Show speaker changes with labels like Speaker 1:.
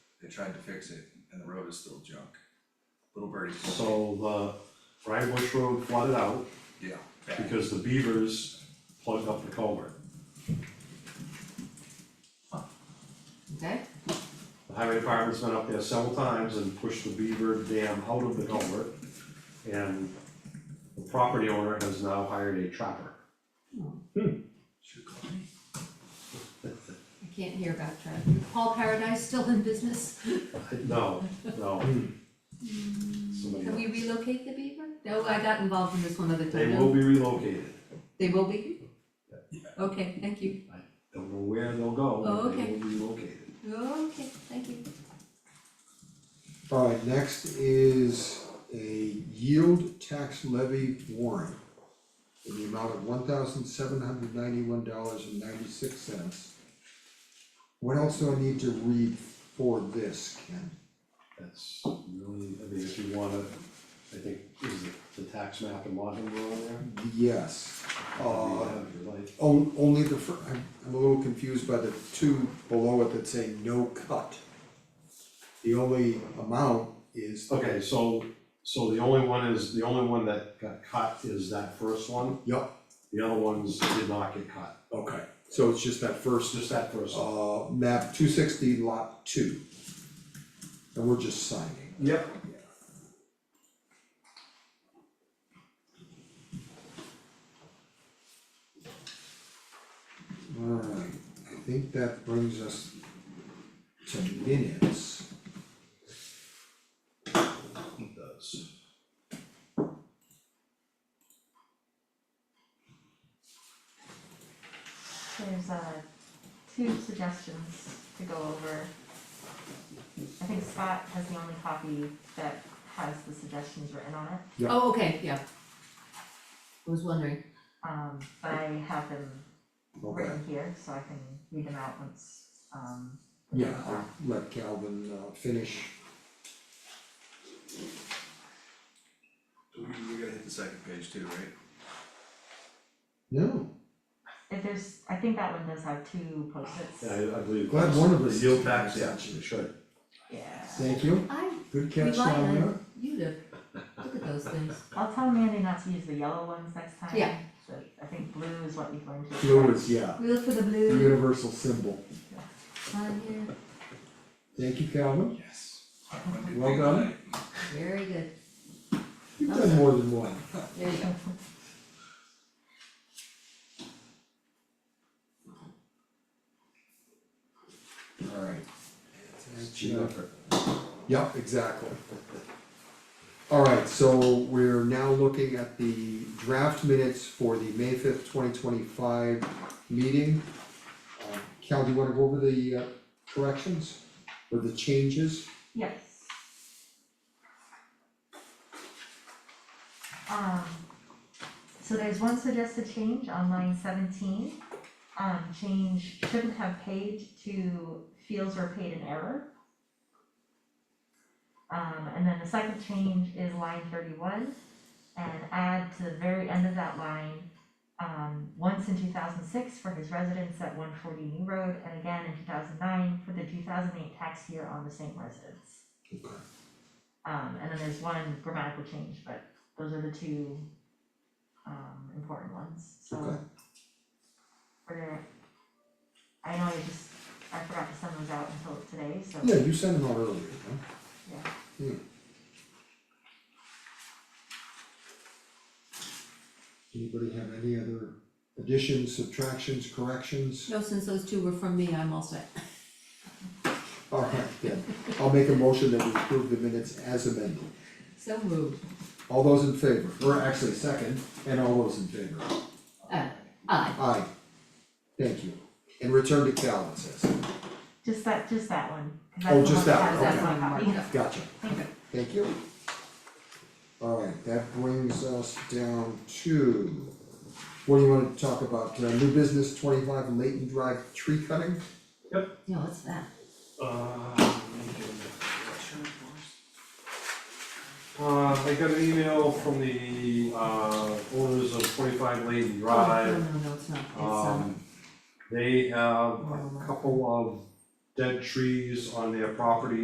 Speaker 1: they tried to fix it and the road is still junk. Little birdie.
Speaker 2: So the Ryan Bush Road flooded out
Speaker 1: Yeah, bad.
Speaker 2: because the beavers plugged up the culvert.
Speaker 3: Okay,
Speaker 2: The highway department's been up there several times and pushed the beaver dam out of the culvert. And the property owner has now hired a trapper.
Speaker 1: Should call me.
Speaker 3: I can't hear about traffic. Paul Paradise still in business?
Speaker 2: No, no.
Speaker 3: Can we
Speaker 2: Somebody,
Speaker 3: relocate the beaver? No, I got involved in this one other
Speaker 2: they
Speaker 3: time.
Speaker 2: will be relocated.
Speaker 3: They will be?
Speaker 2: Yeah.
Speaker 3: Okay, thank you.
Speaker 2: Don't know where they'll go, but they
Speaker 3: Oh, Okay.
Speaker 2: will be relocated.
Speaker 3: Okay, thank you.
Speaker 4: Alright, next is a yield tax levy warrant in the amount of one thousand seven hundred ninety-one dollars and ninety-six cents. What else do I need to read for this, Ken?
Speaker 2: That's really, I mean, if you wanna, I think, is the, the tax map in Lodging Row on there?
Speaker 4: Yes,
Speaker 2: You
Speaker 4: uh,
Speaker 2: have your life.
Speaker 4: on- only the fir-, I'm, I'm a little confused by the two below it that say no cut. The only amount is,
Speaker 2: Okay, so, so the only one is, the only one that got cut is that first one.
Speaker 4: yup,
Speaker 2: The other ones did not get cut,
Speaker 4: okay, so it's just that first
Speaker 2: it's just that first one.
Speaker 4: uh, map two sixty lot two. And we're just signing.
Speaker 2: Yep.
Speaker 4: Alright, I think that brings us to minutes.
Speaker 2: It does.
Speaker 5: There's uh two suggestions to go over. I think Scott has the only copy that has the suggestions written on it,
Speaker 4: Yeah.
Speaker 3: Oh, okay, yeah. I was wondering.
Speaker 5: um but I have them
Speaker 4: Okay,
Speaker 5: written here, so I can read them out once um
Speaker 4: yeah, I'll let Calvin uh finish.
Speaker 1: We, we gotta hit the second page too, right?
Speaker 4: No,
Speaker 5: if there's, I think that one does have two post-its.
Speaker 2: Yeah, I I believe.
Speaker 4: glad one of us.
Speaker 2: The yield tax,
Speaker 4: is-
Speaker 2: yeah, it should.
Speaker 5: Yeah.
Speaker 4: Thank you,
Speaker 3: I,
Speaker 4: good
Speaker 3: we
Speaker 4: catch
Speaker 3: lied
Speaker 4: down there.
Speaker 3: on you to look at those things.
Speaker 5: I'll tell Mandy not to use the yellow ones next time.
Speaker 3: Yeah.
Speaker 5: But I think blue is what you've learned to.
Speaker 4: Blue is, yeah,
Speaker 3: We look for the
Speaker 4: the
Speaker 3: blue
Speaker 4: universal symbol.
Speaker 3: on here.
Speaker 4: Thank you, Calvin,
Speaker 1: Yes. Alright, one good
Speaker 4: Well
Speaker 1: thing
Speaker 4: done.
Speaker 1: tonight.
Speaker 3: Very good.
Speaker 4: you've done more than one.
Speaker 3: There you go.
Speaker 4: Alright.
Speaker 2: Cheap effort.
Speaker 4: Yep, exactly. Alright, so we're now looking at the draft minutes for the May fifth, twenty twenty-five meeting. Uh, Cal, do you wanna go over the uh, corrections or the changes?
Speaker 5: Yes. Um, so there's one suggested change on line seventeen, um, change shouldn't have paid to feels were paid in error. Um, and then the second change is line thirty-one, and add to the very end of that line, um, once in two thousand six for his residence at one forty New Road, and again in two thousand nine for the two thousand eight tax year on the same residence.
Speaker 4: Okay.
Speaker 5: Um, and then there's one grammatical change, but those are the two um important ones, so.
Speaker 4: Okay.
Speaker 5: We're gonna, I know I just, I forgot to send those out until today, so.
Speaker 4: Yeah, you sent them out earlier, huh? Yeah. Anybody have any other additions, subtractions, corrections?
Speaker 3: No, since those two were from me, I'm all set.
Speaker 4: Alright, then, I'll make a motion that we approve the minutes as amended.
Speaker 3: So moved.
Speaker 4: All those in favor, or actually second, and all those in favor,
Speaker 3: Uh, aye.
Speaker 4: aye. Thank you, and return to Cal, it says,
Speaker 5: Just that, just that one, 'cause
Speaker 4: Oh,
Speaker 5: that's the
Speaker 4: just that
Speaker 5: one that
Speaker 4: one,
Speaker 5: has
Speaker 4: okay.
Speaker 5: that one copy.
Speaker 4: gotcha,
Speaker 5: Okay.
Speaker 4: thank you. Alright, that brings us down to, what do you wanna talk about, uh, new business twenty-five Leighton Drive tree cutting?
Speaker 3: No, what's that?
Speaker 2: Uh, Uh, I got an email from the uh owners of twenty-five Lane
Speaker 3: Oh,
Speaker 2: Drive.
Speaker 3: No, no, no, it's not. It's, um,
Speaker 2: Um, they have a couple of dead trees on their property